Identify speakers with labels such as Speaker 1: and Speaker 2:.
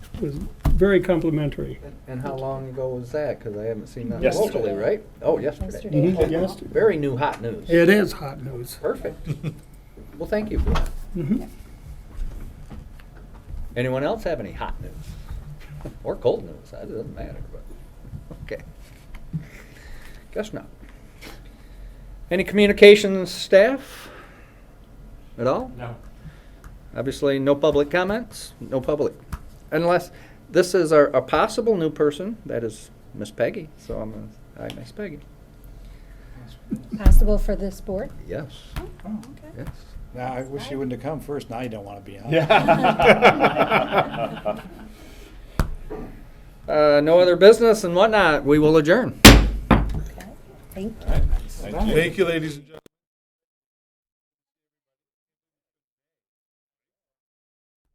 Speaker 1: was very complimentary.
Speaker 2: And how long ago was that? Because I haven't seen that
Speaker 3: Yesterday.
Speaker 2: locally, right? Oh, yesterday.
Speaker 4: yesterday.
Speaker 1: Mhm. Yes.
Speaker 2: Very new hot news.
Speaker 1: It is hot news.
Speaker 2: Perfect. Well, thank you for that.
Speaker 1: Mhm.
Speaker 2: Anyone else have any hot news? Or cold news? That doesn't matter, but, okay. Guess not. Any communications staff at all?
Speaker 3: No.
Speaker 2: Obviously, no public comments, no public, unless, this is our, a possible new person, that is Miss Peggy, so I'm gonna, hi, Miss Peggy.
Speaker 4: Possible for this board?
Speaker 2: Yes,
Speaker 3: Oh.
Speaker 2: yes.
Speaker 5: Now, I wish you wouldn't have come first, now you don't want to be on.
Speaker 3: Yeah.
Speaker 2: Uh, no other business and whatnot, we will adjourn.
Speaker 4: Okay, thank you.
Speaker 5: Thank you.
Speaker 6: Thank you, ladies and gentlemen.